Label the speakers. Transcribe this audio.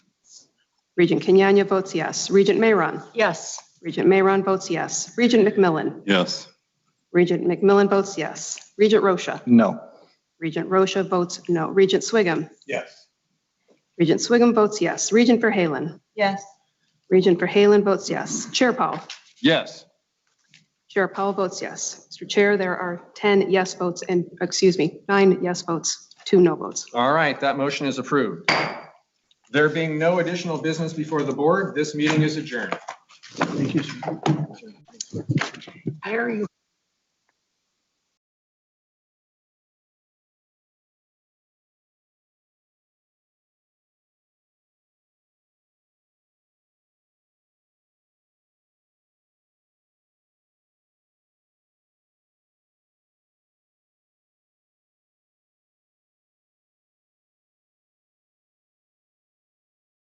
Speaker 1: Regent Kenyanya votes yes. Regent Mayron.
Speaker 2: Yes.
Speaker 1: Regent Mayron votes yes. Regent McMillan.
Speaker 3: Yes.
Speaker 1: Regent McMillan votes yes. Regent Rocha.
Speaker 3: No.
Speaker 1: Regent Rocha votes no. Regent Swigum.
Speaker 3: Yes.
Speaker 1: Regent Swigum votes yes. Regent Verhalen.
Speaker 2: Yes.
Speaker 1: Regent Verhalen votes yes. Chair Powell.
Speaker 3: Yes.
Speaker 1: Chair Powell votes yes. Mr. Chair, there are 10 yes votes and, excuse me, nine yes votes, two no votes.
Speaker 4: All right, that motion is approved. There being no additional business before the board, this meeting is adjourned.
Speaker 5: Thank you, sir.